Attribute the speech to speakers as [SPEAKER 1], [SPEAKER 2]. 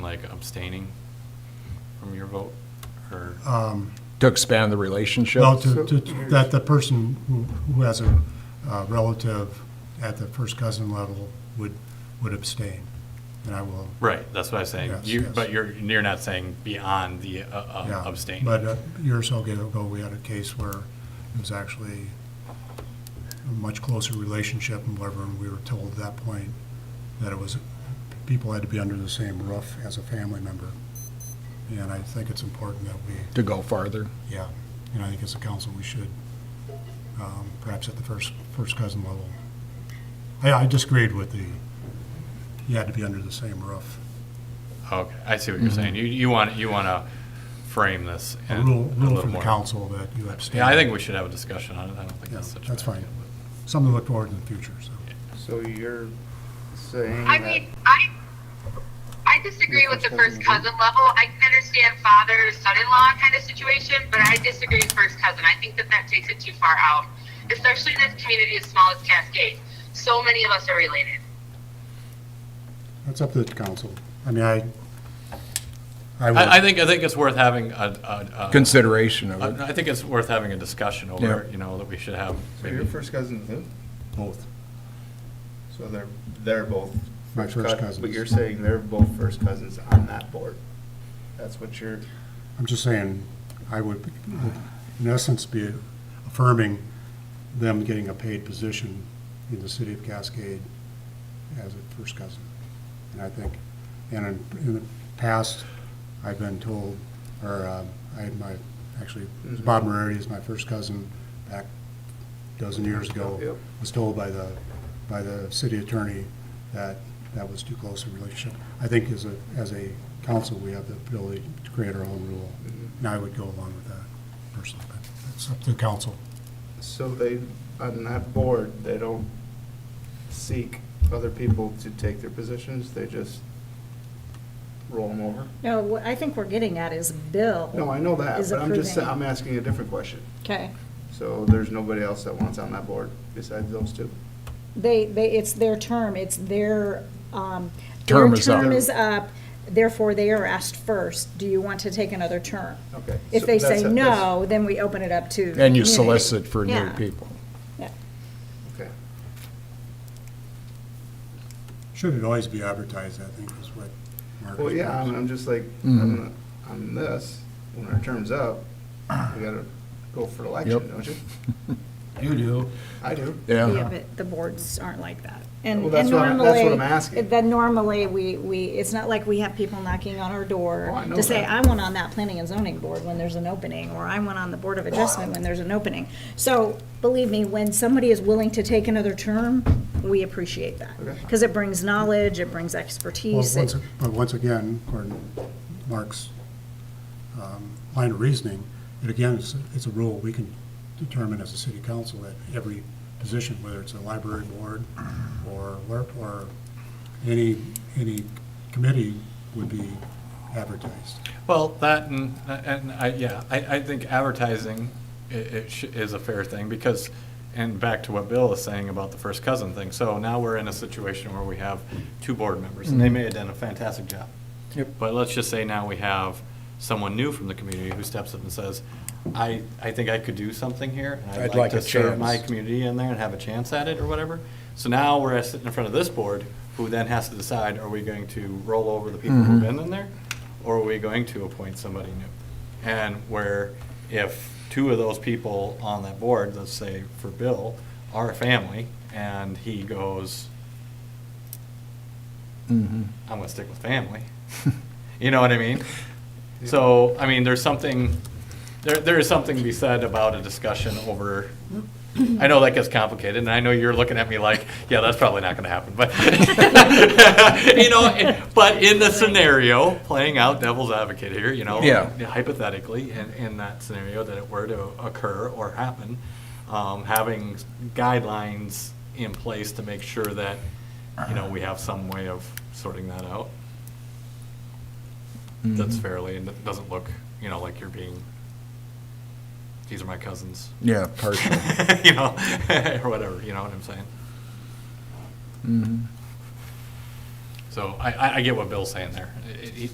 [SPEAKER 1] like abstaining from your vote, or?
[SPEAKER 2] Um,
[SPEAKER 3] To expand the relationship?
[SPEAKER 2] No, to, to, that the person who, who has a uh, relative at the first cousin level would, would abstain, and I will.
[SPEAKER 1] Right, that's what I was saying.
[SPEAKER 2] Yes,
[SPEAKER 1] You,
[SPEAKER 2] yes.
[SPEAKER 1] but you're, you're not saying beyond the uh, uh,
[SPEAKER 2] yeah.
[SPEAKER 1] abstain.
[SPEAKER 2] But uh, a year or so ago, we had a case where it was actually a much closer relationship and whatever, and we were told at that point that it was, people had to be under the same roof as a family member. And I think it's important that we
[SPEAKER 3] To go farther?
[SPEAKER 2] Yeah, and I think as a council, we should, um, perhaps at the first, first cousin level. I, I disagreed with the, you had to be under the same roof.
[SPEAKER 1] Okay, I see what you're saying. You, you want, you want to frame this
[SPEAKER 2] A
[SPEAKER 1] and
[SPEAKER 2] rule,
[SPEAKER 1] a
[SPEAKER 2] rule
[SPEAKER 1] little
[SPEAKER 2] for the
[SPEAKER 1] more.
[SPEAKER 2] council that you abstain.
[SPEAKER 1] Yeah, I think we should have a discussion on it. I don't think that's
[SPEAKER 2] Yeah,
[SPEAKER 1] such a.
[SPEAKER 2] that's
[SPEAKER 1] bad
[SPEAKER 2] fine.
[SPEAKER 1] idea,
[SPEAKER 2] Something to look forward to in the future, so.
[SPEAKER 4] So you're saying
[SPEAKER 5] I
[SPEAKER 4] that
[SPEAKER 5] mean, I I disagree with the first cousin level. I can understand father son-in-law kind of situation, but I disagree with first cousin. I think that that takes it too far out, especially in this community as small as Cascade. So many of us are related.
[SPEAKER 2] That's up to the council. I mean, I, I
[SPEAKER 1] but- I, I
[SPEAKER 2] would,
[SPEAKER 1] think, I think it's worth having a, a- a-
[SPEAKER 3] Consideration of it?
[SPEAKER 1] I I think it's worth having a discussion over, you know, that we should have
[SPEAKER 4] So
[SPEAKER 1] maybe.
[SPEAKER 4] your first cousin who? Both. So they're, they're both.
[SPEAKER 2] My first
[SPEAKER 4] cous- But
[SPEAKER 2] cousins.
[SPEAKER 4] you're saying they're both first cousins on that board. That's what you're,
[SPEAKER 2] I'm just saying, I would, would in essence, be affirming them getting a paid position in the city of Cascade as a first cousin. And I think, and in, in the past, I've been told, or, um, I had my, actually, Bob Moretti is my first cousin back a dozen years ago.
[SPEAKER 4] Yep.
[SPEAKER 2] Was told by the, by the city attorney that that was too close a relationship. I think as a, as a council, we have the ability to create our own rule. And I would go along with that personally, but that's up to the council.
[SPEAKER 4] so they, on that board, they don't seek other people to take their positions, they just roll them over?
[SPEAKER 6] No, what I think we're getting at is Bill.
[SPEAKER 4] No, I know that,
[SPEAKER 6] Is
[SPEAKER 4] but I'm just, sa-
[SPEAKER 6] approving.
[SPEAKER 4] I'm asking a different question.
[SPEAKER 6] Okay.
[SPEAKER 4] So there's nobody else that wants on that board besides those two?
[SPEAKER 6] They, they, it's their term, it's their, um.
[SPEAKER 3] Term is up.
[SPEAKER 6] Their term is up, therefore they are asked first, do you want to take another term?
[SPEAKER 4] Okay.
[SPEAKER 6] If
[SPEAKER 4] So
[SPEAKER 6] they
[SPEAKER 4] that's-
[SPEAKER 6] say
[SPEAKER 4] that's-
[SPEAKER 6] no, then we open it up to. the
[SPEAKER 3] And you
[SPEAKER 6] community.
[SPEAKER 3] solicit for new
[SPEAKER 6] Yeah.
[SPEAKER 3] people?
[SPEAKER 4] Okay.
[SPEAKER 2] Should it always be advertised, I think, is what Mark.
[SPEAKER 4] Well, yeah, I'm, I'm just like,
[SPEAKER 3] Mhm.
[SPEAKER 4] on, on this, when our term's up, we gotta go for election,
[SPEAKER 3] Yep.
[SPEAKER 4] don't you?
[SPEAKER 3] You do.
[SPEAKER 4] I do.
[SPEAKER 6] Yeah,
[SPEAKER 3] Yeah.
[SPEAKER 6] but the boards aren't like that. And
[SPEAKER 4] Well,
[SPEAKER 6] and
[SPEAKER 4] that's what I'm-
[SPEAKER 6] normally,
[SPEAKER 4] that's what I'm asking.
[SPEAKER 6] Then normally, we, we, it's not like we have people knocking on our
[SPEAKER 4] Oh, I
[SPEAKER 6] door
[SPEAKER 4] know
[SPEAKER 6] to say,
[SPEAKER 4] that.
[SPEAKER 6] I want on that planning and zoning board when there's an opening, or I want on the Board of Adjustment when there's an opening. So, believe me, when somebody is willing to take another term, we appreciate that.
[SPEAKER 4] Okay.
[SPEAKER 6] Because it brings knowledge, it brings
[SPEAKER 2] Well,
[SPEAKER 6] expertise.
[SPEAKER 2] once,
[SPEAKER 6] it-
[SPEAKER 2] but once again, according to Mark's um, line of reasoning, it again, it's, it's a rule we can determine as a city council that every position, whether it's a library board or, where- or any, any committee would be advertised.
[SPEAKER 1] Well, that and, and I, yeah, I, I think advertising i- it sh- is a fair thing because, and back to what Bill is saying about the first cousin thing. So now we're in a situation where we have two board members and they may have done a fantastic job.
[SPEAKER 3] Mm-hmm. Yep.
[SPEAKER 1] But let's just say now we have someone new from the community who steps up and says, I, I think I could do something here. and
[SPEAKER 3] I'd like a
[SPEAKER 1] to serve my
[SPEAKER 3] chance."
[SPEAKER 1] community in there and have a chance at it or whatever. So now we're sitting in front of this board who then has to decide, are we going to roll over the people who've been in there? Or are we going to appoint somebody new? And where if two of those people on that board, let's say for Bill, are a family and he goes,
[SPEAKER 3] Mhm.
[SPEAKER 1] I'm gonna stick with family. You know what I mean? So, I mean, there's something, there, there is something to be said about a discussion over, I know that gets complicated, and I know you're looking at me like, yeah, that's probably not gonna happen, but, you know, but in the scenario, playing out devil's advocate here, you know?
[SPEAKER 3] Yeah.
[SPEAKER 1] Hypothetically, in, in that scenario that it were to occur or happen, um, having guidelines in place to make sure that, you know, we have some way of sorting that out
[SPEAKER 3] Mm-hmm.
[SPEAKER 1] that's fairly and that doesn't look, you know, like you're being, these are my cousins.
[SPEAKER 3] Yeah, partial.
[SPEAKER 1] you know, or whatever, you know what I'm saying?
[SPEAKER 3] Mhm. Mm-hmm.
[SPEAKER 1] So I, I, I get what Bill's saying there. It- it-